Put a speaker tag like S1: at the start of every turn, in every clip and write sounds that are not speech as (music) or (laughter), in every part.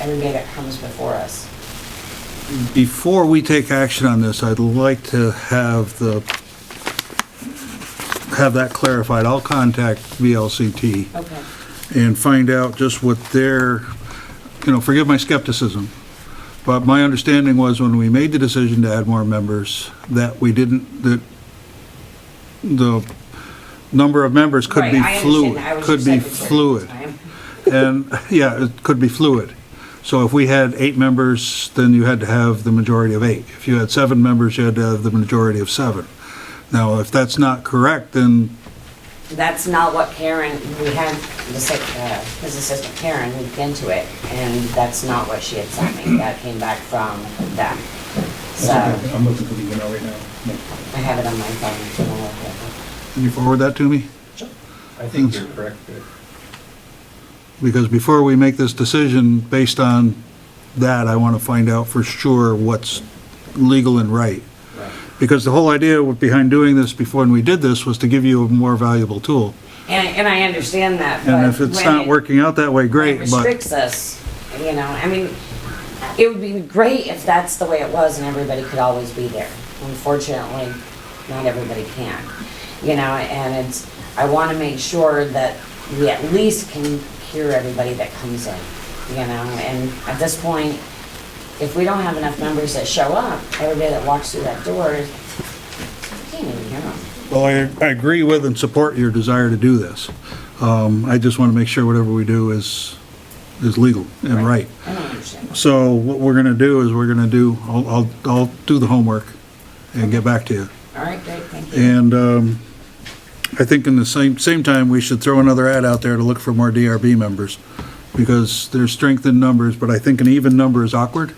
S1: everybody that comes before us.
S2: Before we take action on this, I'd like to have the, have that clarified. I'll contact VLCT
S1: Okay.
S2: and find out just what their, you know, forgive my skepticism, but my understanding was when we made the decision to add more members, that we didn't, that the number of members could
S1: Right,
S2: be
S1: I understand
S2: fluid.
S1: that. I was
S2: Could
S1: your secretary
S2: be
S1: at the
S2: fluid.
S1: time.
S2: And, (laughs) yeah, it could be fluid. So if we had eight members, then you had to have the majority of eight. If you had seven members, you had to have the majority of seven. Now, if that's not correct, then,
S1: That's not what Karen, we had the sec- uh, his assistant Karen looked into it, and that's not what she had sent me. That came back from them. So I
S3: I'm looking for the email right now. No.
S1: have it on my phone. if you wanna look at it.
S2: can you forward that to me?
S3: I think you're correct, but
S2: Because before we make this decision, based on that, I want to find out for sure what's legal and right. Because the whole idea behind doing this before, when we did this, was to give you a more valuable tool.
S1: And, and I understand that, but.
S2: And if it's
S1: when
S2: not
S1: it-
S2: working out that way,
S1: It
S2: great, but
S1: restricts us, you know, I mean, it would be great if that's the way it was and everybody could always be there. Unfortunately, not everybody can, you know, and it's, I want to make sure that we at least can hear everybody that comes in, you know, and at this point, if we don't have enough members that show up, everybody that walks through that door, you can't even hear them.
S2: Well, I, I agree with and support your desire to do this. Um, I just want to make sure whatever we do is, is legal and right.
S1: I don't understand.
S2: So what we're going to do is we're going to do, I'll, I'll, I'll do the homework and get back to you.
S1: All right, great, thank you.
S2: And um, I think in the same, same time, we should throw another ad out there to look for more DRB members, because there's strength in numbers, but I think an even number is awkward.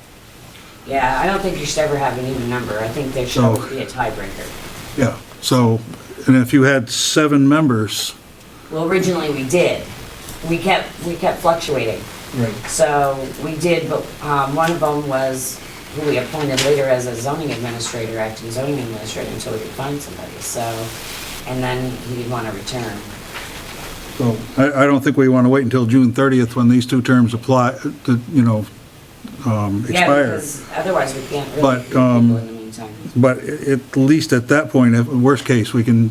S1: Yeah, I don't think you should ever have an even number. I think there should
S2: So-
S1: always be a tiebreaker.
S2: Yeah, so, and if you had seven members,
S1: Well, originally we did. We kept, we kept fluctuating.
S3: Right.
S1: So we did, but um, one of them was who we appointed later as a zoning administrator, acting zoning administrator, until we could find somebody, so. And then he didn't want to return.
S2: so I, I don't think we want to wait until June 30th when these two terms apply, to, you know, um,
S1: Yeah,
S2: expire.
S1: because otherwise we can't really
S2: But,
S1: get people
S2: um,
S1: in the meantime.
S2: But i- at least at that point, if, worst case, we can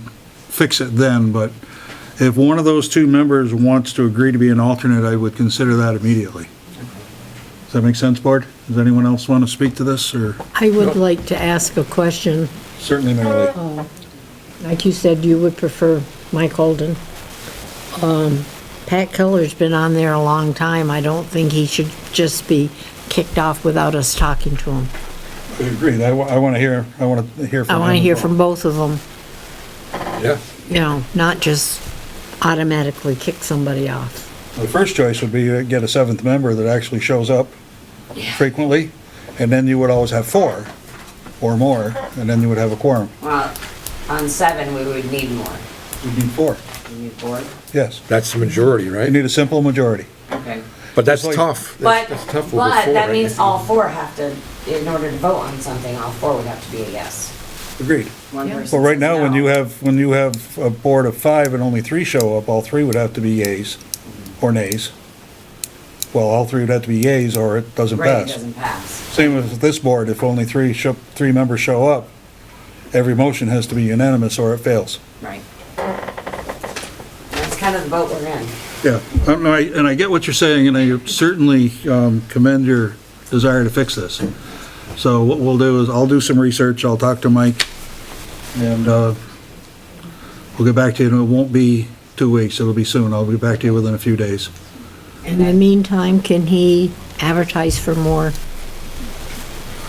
S2: fix it then, but if one of those two members wants to agree to be an alternate, I would consider that immediately. Does that make sense, Board? Does anyone else want to speak to this, or?
S4: I would like to ask a question.
S2: Certainly, Mary
S4: Like you said, you would prefer Mike Holden. Um, Pat Keller's been on there a long time. I don't think he should just be kicked off without us talking to him.
S2: I agree, I want to hear, I want to hear from
S4: I want to hear from both of them,
S3: Yeah.
S4: you know, not just automatically kick somebody off.
S2: The first choice would be to get a seventh member that actually shows up frequently, and then you would always have four or more, and then you would have a quorum.
S1: Well, on seven, we would need more.
S2: You need four,
S1: We need four.
S2: yes.
S5: That's the majority,
S2: You
S5: right?
S2: need a simple majority.
S1: Okay.
S5: But that's
S2: It's like-
S5: tough.
S1: But,
S5: That's that's tough over
S1: but
S5: four,
S1: that
S5: right?
S1: means all four have to, in order to vote on something, all four would have to be a yes.
S2: Agreed.
S1: One
S4: Yeah.
S1: person
S2: Well, right
S1: says
S2: now, when
S1: no.
S2: you have, when you have a board of five and only three show up, all three would have to be yays or nays. Well, all three would have to be yays or it doesn't
S1: Right, it
S2: pass.
S1: doesn't pass.
S2: Same with this board, if only three show, three members show up, every motion has to be unanimous or it fails.
S1: Right. That's kind of the boat we're in.
S2: Yeah, and I, and I get what you're saying, and I certainly um, commend your desire to fix this. So what we'll do is, I'll do some research, I'll talk to Mike, and uh, we'll get back to you, and it won't be two weeks, it'll be soon, I'll be back to you within a few days.
S4: In the meantime, can he advertise for more?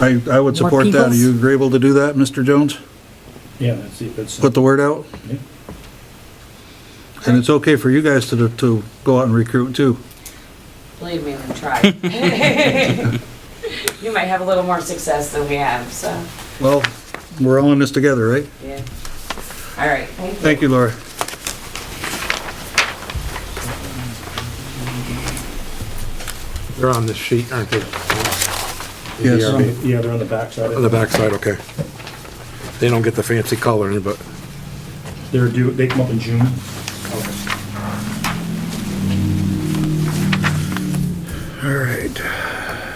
S2: I, I would
S4: More
S2: support that, are
S4: peoples?
S2: you agreeable to do that, Mr. Jones?
S3: Yeah, that's it, that's.
S2: Put the word out?
S3: Yeah.
S2: And it's okay for you guys to, to go out and recruit too.
S1: Believe me, we tried. (laughs) You might have a little more success than we have, so,
S2: Well, we're all in this together, right?
S1: yeah. All right, thank you.
S2: Thank you, Laura.
S5: They're on this sheet, aren't they?
S2: Yes.
S5: The
S3: They're on
S5: DRB.
S3: the- Yeah, they're on the backside.
S5: On the backside, okay. They don't get the fancy coloring, but
S3: They're due, they come up in June.